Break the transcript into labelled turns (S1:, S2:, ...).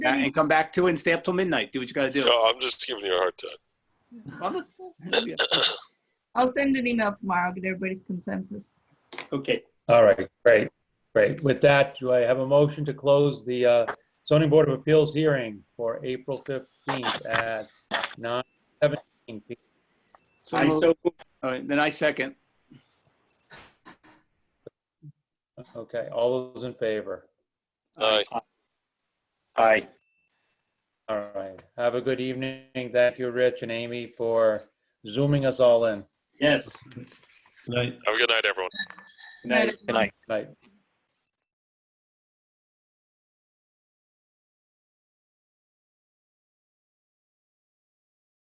S1: Yeah, and come back to it and stay up till midnight. Do what you got to do.
S2: Joe, I'm just giving you a hard time.
S1: Yeah.
S3: I'll send an email tomorrow, get everybody's consensus.
S1: Okay.
S4: All right, great, great. With that, do I have a motion to close the uh, zoning board of appeals hearing for April 15th at 9:17 p.m.?
S1: So I so. All right, then I second.
S4: Okay, all those in favor?
S2: Aye.
S1: Aye.
S4: All right, have a good evening. Thank you, Rich and Amy, for zooming us all in.
S1: Yes.
S2: Have a good night, everyone.
S1: Good night.
S4: Night.